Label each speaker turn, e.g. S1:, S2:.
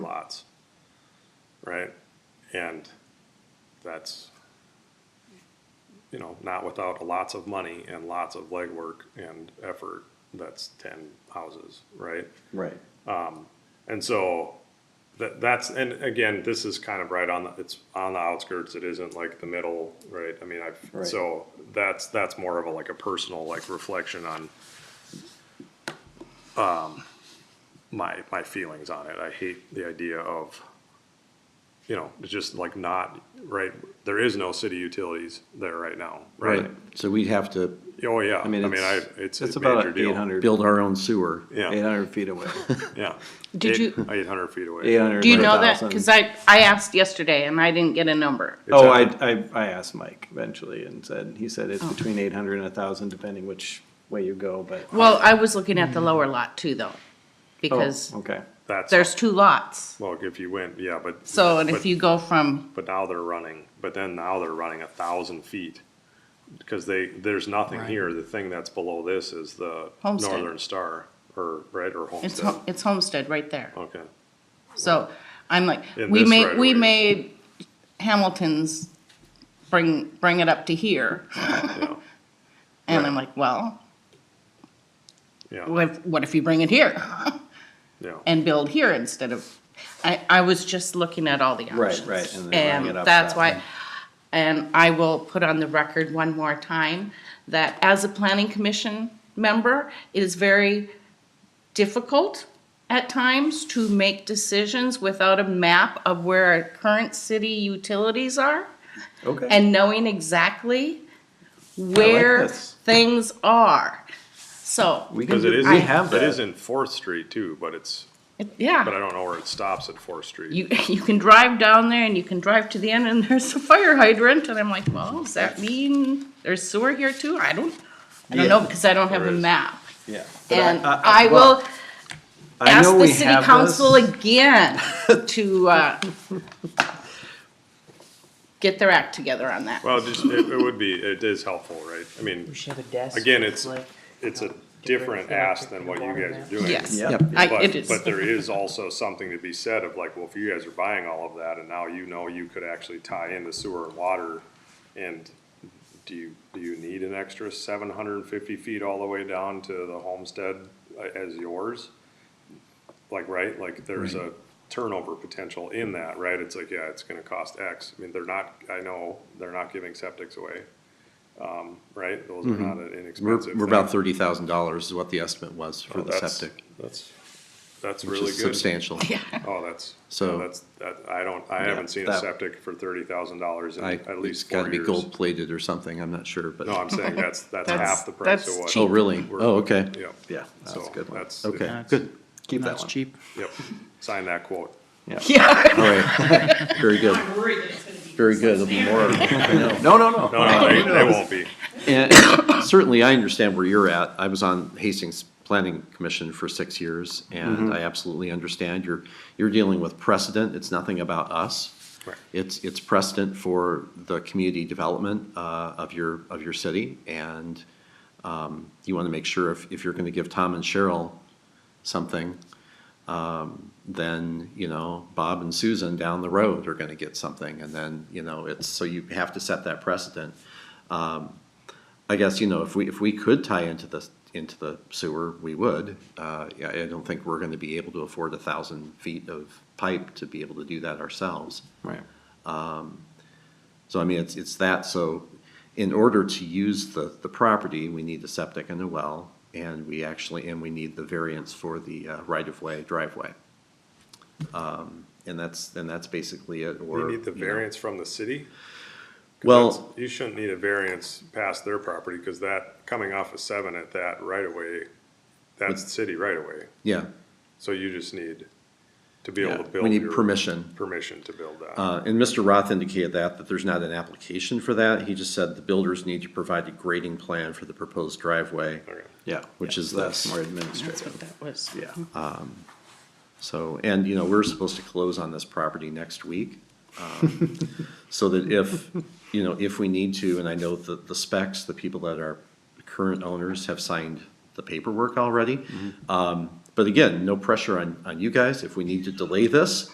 S1: lots. Right? And that's, you know, not without lots of money and lots of legwork and effort. That's ten houses, right?
S2: Right.
S1: And so that, that's, and again, this is kind of right on, the it's on the outskirts. It isn't like the middle, right? I mean, I've,
S2: Right.
S1: so that's, that's more of a, like a personal, like reflection on, um, my, my feelings on it. I hate the idea of, you know, it's just like not, right? There is no city utilities there right now, right?
S2: So we'd have to
S1: Oh, yeah. I
S2: I mean,
S1: mean, I,
S2: it's-
S1: it's.
S3: It's
S1: a major
S3: about
S1: deal.
S3: eight hundred,
S2: build our own sewer.
S1: Yeah.
S3: eight hundred feet away.
S1: Yeah.
S4: Did you-
S1: Eight hundred feet away.
S3: Eight hundred.
S4: Do you know that? Because I, I asked yesterday and I didn't get a number.
S1: It's
S3: Oh,
S1: a-
S3: I, I, I asked Mike eventually and said, he said
S4: Oh.
S3: it's between eight hundred and a thousand, depending which way you go, but.
S4: Well, I was looking at the
S1: Hmm.
S4: lower lot too, though,
S3: Oh,
S4: because
S3: Okay,
S1: That's.
S4: there's two lots.
S1: Well, if you went, yeah, but.
S4: So, and
S1: but-
S4: if you go from,
S1: But now they're running, but then now they're running a thousand feet. Because they, there's nothing here. The thing that's below this is the
S4: Homestead.
S1: Northern Star or, right, or
S4: it's,
S1: Homestead.
S4: Ho- it's Homestead right there.
S1: Okay,
S4: So I'm like,
S1: In
S4: we
S1: this
S4: made,
S1: right
S4: we
S1: away.
S4: made Hamilton's bring, bring it up to here.
S1: yeah,
S4: And I'm like, well,
S1: yeah,
S4: what if, what if you bring it here
S1: yeah.
S4: and build here instead of, I, I was just looking at all the options.
S3: right, right. then bring it
S4: And
S3: up
S4: that's
S3: that way.
S4: why, and I will put on the record one more time that as a planning commission member, it is very difficult at times to make decisions without a map of where our current city utilities are
S3: Okay.
S4: and knowing exactly where
S3: this.
S4: things are. So,
S3: We can,
S1: Because it
S3: do-
S1: is,
S3: we have
S1: it is
S3: that.
S1: in Fourth Street too, but it's,
S4: it-
S1: but I
S4: yeah,
S1: don't know where it stops at Fourth Street.
S4: you, you can drive down there and you can drive to the end and there's a fire hydrant and I'm like, well, does that mean there's sewer here too? I don't, I don't know
S3: Yeah,
S4: because I don't have
S1: there
S4: a
S1: is.
S4: map.
S3: Yeah. But
S4: And
S3: I-
S4: I
S3: well,
S4: will
S3: I
S4: ask
S3: know
S4: the
S3: we
S4: city
S3: have
S4: council
S3: this.
S4: again to, uh, get their act together on that.
S1: Well, just, it, it would be, it is helpful, right? I mean,
S5: We should have a desk.
S1: again, it's,
S5: like-
S1: it's a different ask than what you guys are doing.
S4: Yes.
S3: Yep.
S4: I- it
S1: But,
S4: is.
S1: but there is also something to be said of like, well, if you guys are buying all of that and now you know you could actually tie into sewer and water. And do you, do you need an extra seven hundred and fifty feet all the way down to the homestead uh, as yours? Like, right, like there's a turnover potential in that, right? It's like, yeah, it's gonna cost X. I mean, they're not, I know, they're not giving septics away. Um, right, those are not an
S2: Mm-hmm. We're,
S1: inexpensive.
S2: we're about
S1: thing.
S2: thirty thousand dollars is what the estimate was for
S1: Oh,
S2: the
S1: that's-
S2: septic,
S1: That's, that's
S2: which
S1: really
S2: is
S1: good.
S2: substantial.
S1: Oh, that's, so
S2: So-
S1: that's, that, I don't, I haven't seen a
S3: that-
S1: septic for thirty thousand dollars in
S2: I,
S1: at
S2: it's
S1: least four
S2: gotta be
S1: years.
S2: gold plated or something, I'm not sure, but,
S1: No, I'm saying that's, that's
S4: That's-
S1: half the price
S4: that's
S1: of what.
S2: oh, really?
S1: we're-
S2: Oh, okay,
S1: Yep.
S3: Yeah, that's
S1: So
S3: a good one.
S1: that's-
S2: okay,
S6: That's-
S2: good,
S3: Keep that
S6: That's
S3: one.
S6: cheap.
S1: Yep, sign that quote.
S4: Yeah,
S2: all right, very good,
S7: I'm worried that it's gonna be.
S2: very good, there'll be more. I know.
S3: No, no, no.
S1: No, no, they, they won't be.
S2: And certainly, I understand where you're at. I was on Hastings Planning Commission for six years, and I absolutely understand. You're, you're dealing with precedent. It's nothing about us.
S1: Right.
S2: It's, it's precedent for the community development uh, of your, of your city. And um, you want to make sure if, if you're going to give Tom and Cheryl something, um, then, you know, Bob and Susan down the road are going to get something. And then, you know, it's, so you have to set that precedent. I guess, you know, if we, if we could tie into the, into the sewer, we would. Uh, yeah, I don't think we're gonna be able to afford a thousand feet of pipe to be able to do that ourselves. Um,
S3: Right.
S2: So I mean, it's, it's that, so in order to use the, the property, we need the septic and the well, and we actually, and we need the variance for the uh, right-of-way driveway. Um, And that's, and that's basically it, or.
S1: You need the
S2: you know.
S1: variance from the city? 'Cause
S2: Well-
S1: that's- You shouldn't need a variance past their property, cause that, coming off of seven at that right away, that's city right away.
S2: Yeah,
S1: So you just need to be
S2: yeah,
S1: able to build
S2: we need
S1: your-
S2: permission.
S1: Permission to build that.
S2: Uh, And Mr. Roth indicated that, that there's not an application for that. He just said the builders need to provide a grading plan for the proposed driveway.
S1: Okay.
S3: Yeah.
S2: Which
S3: yeah,
S2: is
S3: That's
S2: this. Um,
S3: more
S4: that's what
S3: administrative.
S4: that was.
S3: Yeah.
S2: So, and, you know, we're supposed to close on this property next week. um, So that if, you know, if we need to, and I know that the specs, the people that are current owners have signed the
S3: Mm-hmm.
S2: paperwork already. Um, But again, no pressure on, on you guys. If we need to delay this,